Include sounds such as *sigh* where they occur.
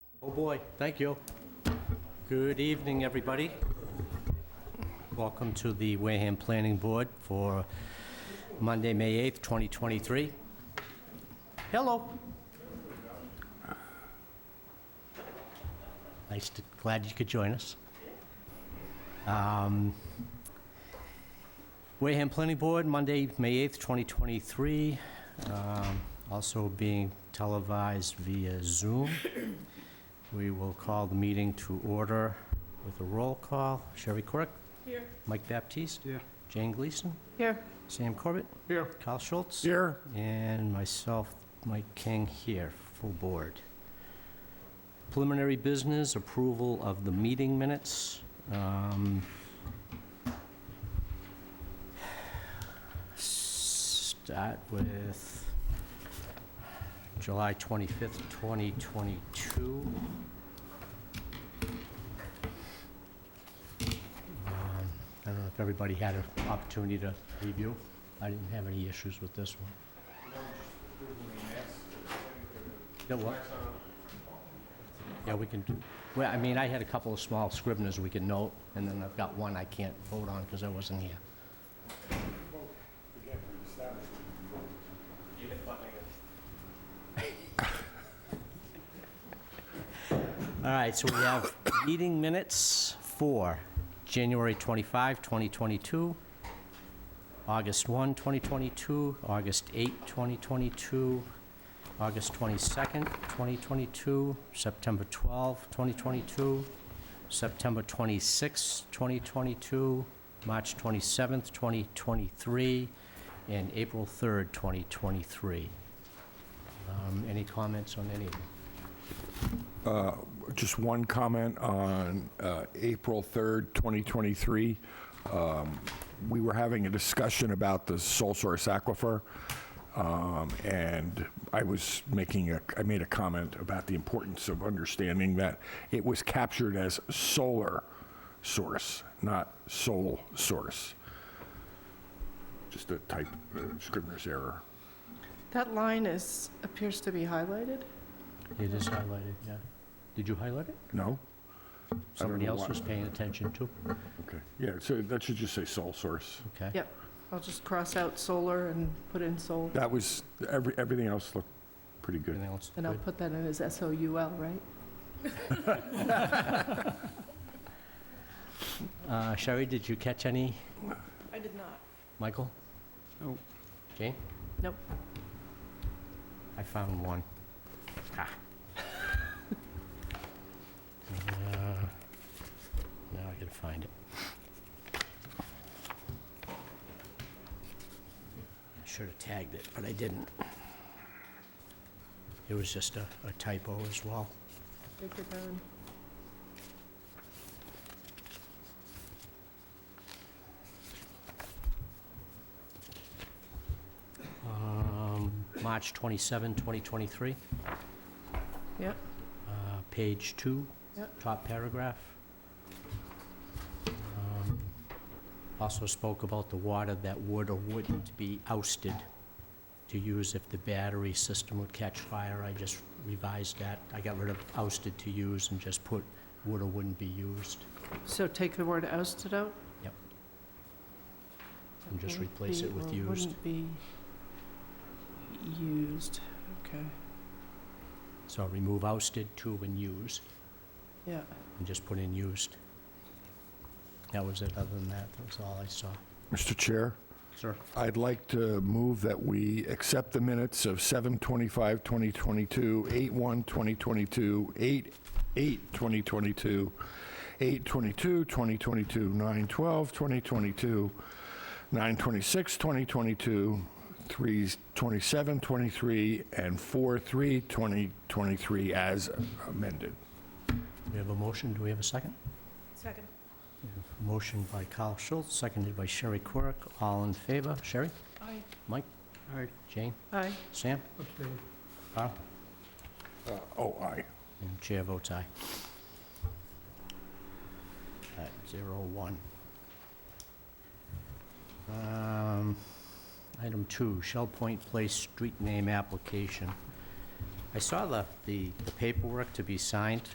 Oh, boy, thank you. Good evening, everybody. Welcome to the Wareham Planning Board for Monday, May 8th, 2023. Hello. Nice to, glad you could join us. Um, Wareham Planning Board, Monday, May 8th, 2023, um, also being televised via Zoom. We will call the meeting to order with a roll call. Sherry Corrick? Here. Mike Baptiste? Here. Jane Gleason? Here. Sam Corbett? Here. Kyle Schultz? Here. And myself, Mike King here, full board. Preliminary business, approval of the meeting minutes. Um, Start with July 25th, 2022. Um, I don't know if everybody had an opportunity to review. I didn't have any issues with this one. Yeah, what? Yeah, we can do, well, I mean, I had a couple of small scribblers we can note, and then I've got one I can't vote on because I wasn't here. *laughs* All right, so we have meeting minutes for January 25, 2022, August 1, 2022, August 8, 2022, August 22nd, 2022, September 12, 2022, September 26, 2022, March 27th, 2023, and April 3rd, 2023. Um, Any comments on any of them? Just one comment on uh, April 3rd, 2023. Um, We were having a discussion about the sole source aquifer, um, and I was making a, I made a comment about the importance of understanding that it was captured as solar source, not sole source. Just a type, uh, Scrivener's error. That line is, appears to be highlighted. It is highlighted, yeah. Did you highlight it? No? Somebody know else why. was paying attention too? Okay. Yeah, so that should just say sole source. Okay. Yep. I'll just cross out solar and put in sol, That was, every, everything else looked pretty good. Everything else and I'll good? put that in as S-O-U-L, right? Uh, Sherry, did you catch any? I did not. Michael? No. Jane? Nope. I found one. Ah. Uh, Now I gotta find it. I should have tagged it, but I didn't. It was just a a typo as well. Take your time. Um, March 27, 2023. Yep. Uh, Page two, Yep. top paragraph. Um, Also spoke about the water that would or wouldn't be ousted to use if the battery system would catch fire. I just revised that. I got rid of ousted to use and just put would or wouldn't be used So take the word ousted out? Yep. And just Wouldn't replace be it with or used. Wouldn't be used, okay, So remove ousted to and used, yeah. and just put in used. That was it. Other than that, that was all I saw. Mr. Chair, Sir? I'd like to move that we accept the minutes of 7:25, 2022, 8:1, 2022, 8, 8, 2022, 8, 22, 2022, 9, 12, 2022, 9, 26, 2022, 3, 27, 23, and 4, 3, 2023 as amended. We have a motion, do we have a second? Second. Motion by Kyle Schultz, seconded by Sherry Quirk, all in favor. Sherry? Aye. Aye. Jane? Aye. Sam? Abstain. Carl? Uh, Oh, aye. And chair votes aye. At zero one. Um, Item two, Shell Point Place street name application. I saw the, the the paperwork to be signed